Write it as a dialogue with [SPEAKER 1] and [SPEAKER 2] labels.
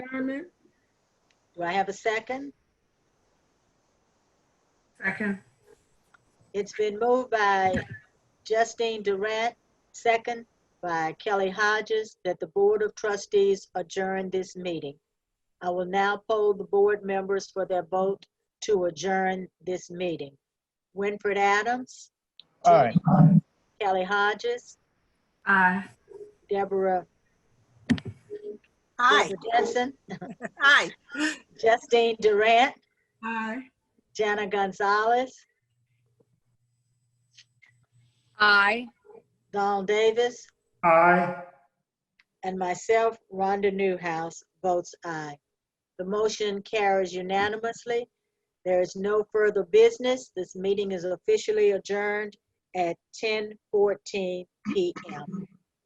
[SPEAKER 1] adjournment? Do I have a second?
[SPEAKER 2] Second.
[SPEAKER 1] It's been moved by Justine Durant, second by Kelly Hodges, that the Board of Trustees adjourn this meeting. I will now poll the board members for their vote to adjourn this meeting. Winfred Adams,
[SPEAKER 3] Aye.
[SPEAKER 1] Kelly Hodges,
[SPEAKER 2] Aye.
[SPEAKER 1] Deborah
[SPEAKER 4] Aye,
[SPEAKER 1] Deborah Jensen,
[SPEAKER 4] aye.
[SPEAKER 1] Justine Durant,
[SPEAKER 2] Aye.
[SPEAKER 1] Jana Gonzalez,
[SPEAKER 5] Aye.
[SPEAKER 1] Don Davis,
[SPEAKER 3] Aye.
[SPEAKER 1] and myself, Rhonda Newhouse, votes aye. The motion carries unanimously. There is no further business. This meeting is officially adjourned at 10:14 PM.